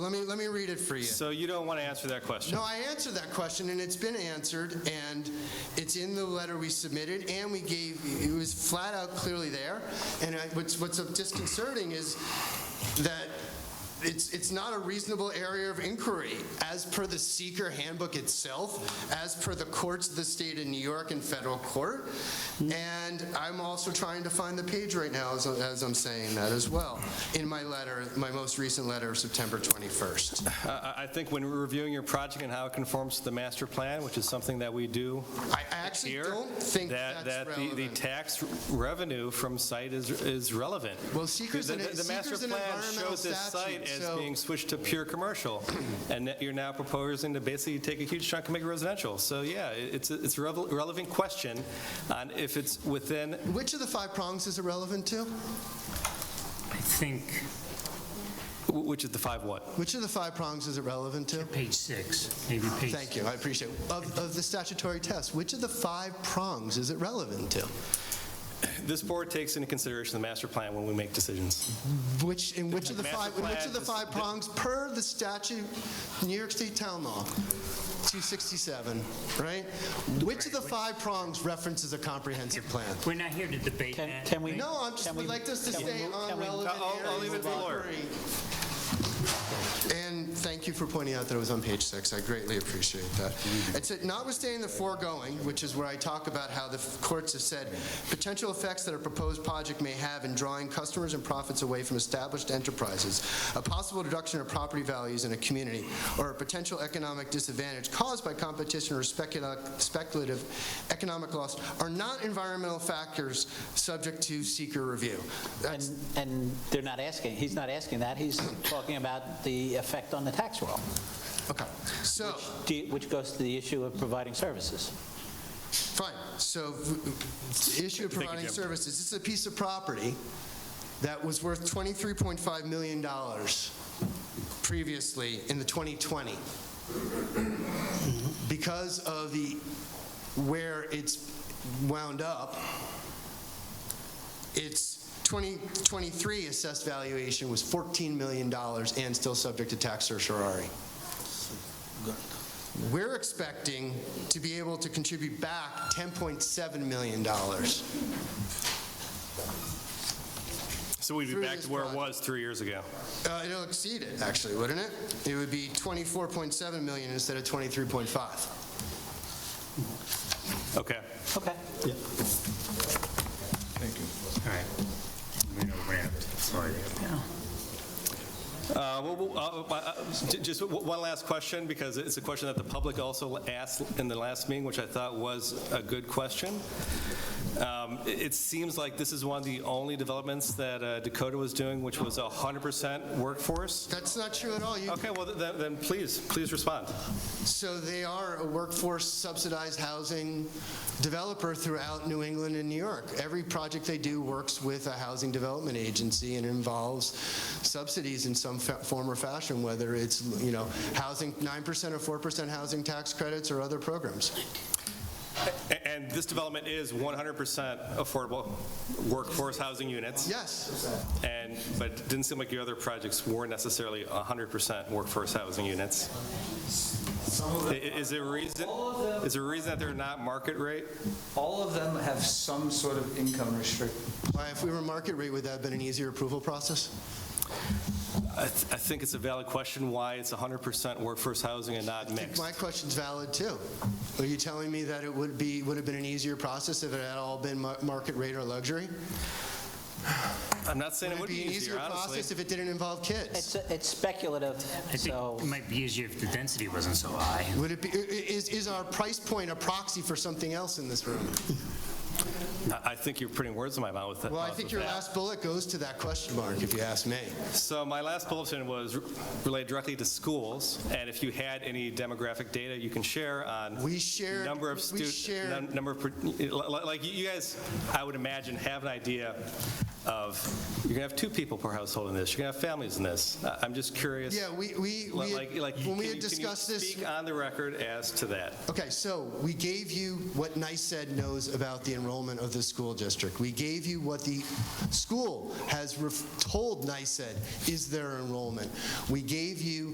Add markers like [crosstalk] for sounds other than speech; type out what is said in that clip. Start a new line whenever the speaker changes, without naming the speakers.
Let me, let me read it for you.
So you don't want to answer that question?
No, I answered that question, and it's been answered, and it's in the letter we submitted, and we gave, it was flat out clearly there. And I- what's, what's disconcerting is that it's, it's not a reasonable area of inquiry, as per the seeker handbook itself, as per the courts of the state of New York and federal court. And I'm also trying to find the page right now, as, as I'm saying that as well, in my letter, my most recent letter of September 21st.
I I- I think when we're reviewing your project and how it conforms to the master plan, which is something that we do
I actually
here,
don't think
that,
that's
that the- the
relevant.
tax revenue from site is is relevant.
Well, seeker's
The-
an-
the-
seeker's an
The master plan
environmental
shows this
statute,
site as
so-
being switched to pure
[clears throat]
commercial, and that you're now proposing to basically take a huge chunk and make it residential. So, yeah, it- it's, a- it's a revel- relevant question on if it's within,
Which of the five prongs is irrelevant to?
I think
which is the five what?
Which of the five prongs is it relevant to?
page six, maybe page.
Thank you, I appreciate it. Of, of the statutory test, which of the five prongs is it relevant to?
This board takes into consideration the master plan when we make decisions.
Which, in which of the
Master
five, in which of the
plan,
five
the-
prongs, per the statute, New York State Town Law, 267, right? Which of the five prongs references a comprehensive plan?
We're not here to debate
Can-
that.
can we-
No, I'm just,
Can we-
would like us to
can we
stay
move-
on
can we-
relevant
I'll- I'll
areas
leave it
of
to the lawyer.
inquiry. And thank you for pointing out that it was on page six. I greatly appreciate that. It said, notwithstanding the foregoing, which is where I talk about how the courts have said, potential effects that a proposed project may have in drawing customers and profits away from established enterprises, a possible reduction of property values in a community, or a potential economic disadvantage caused by competition or specula- speculative economic loss are not environmental factors subject to seeker review. That's-
And, and they're not asking, he's not asking that, he's talking about the effect on the tax roll,
Okay, so,
do you- which goes to the issue of providing services.
fine, so v- the issue of providing
Jim.
services, this is a piece of property that was worth $23.5 million previously in the 2020. Because of the, where it's wound up, its 2023 assessed valuation was $14 million and still subject to tax certiorari. We're expecting to be able to contribute back $10.7 million.
So we'd be
Through
back
this
to where it
project.
was three years ago.
Uh, It'll exceed it, actually, wouldn't it? It would be 24.7 million instead of 23.5.
Okay.
Okay.
All right. We know we're out. Sorry.
Uh, well, well, uh, uh, j- Just w- one last question, because it's a question that the public also asked in the last meeting, which I thought was a good question. Um, It it seems like this is one of the only developments that uh, Dakota was doing, which was 100% workforce.
That's not true at all. You-
Okay, well, th- then, then please, please respond.
So they are a workforce subsidized housing developer throughout New England and New York. Every project they do works with a housing development agency and involves subsidies in some fa- form or fashion, whether it's, you know, housing, 9% or 4% housing tax credits or other programs.
A- And this development is 100% affordable workforce housing units,
Yes,
and, but it didn't seem like your other projects were necessarily 100% workforce housing units. I- i- Is there a reason,
All of them-
is there a reason that they're not market rate?
All of them have some sort of income restrict.
Why, if we were market rate, would that have been an easier approval process?
I th- I think it's a valid question why it's 100% workforce housing and not mixed.
My question's valid, too. Are you telling me that it would be, would have been an easier process if it had all been mar- market rate or luxury?
I'm not saying it would be easier,
an easier process
honestly.
if it didn't involve kids?
It's, it's speculative,
I think
so.
it might be easier if the density wasn't so high.
Would it be, i- i- is, is our price point a proxy for something else in this room?
I- I think you're putting words in my mouth with that.
Well, I think your last bullet goes to that question mark, if you ask me.
So my last bulletin was related directly to schools, and if you had any demographic data you can share on
We shared,
number of
we
students,
shared,
number, of per- li- like, you guys, I would imagine, have an idea of, you're going to have two people per household in this, you're going to have families in this. I- I'm just curious.
yeah, we, we, we had-
Like, like,
when
can
we
you-
had
can you
discussed this,
Speak on the record as to that.
Okay, so we gave you what NICEAD knows about the enrollment of the school district. We gave you what the school has ref- told NICEAD is their enrollment. We gave you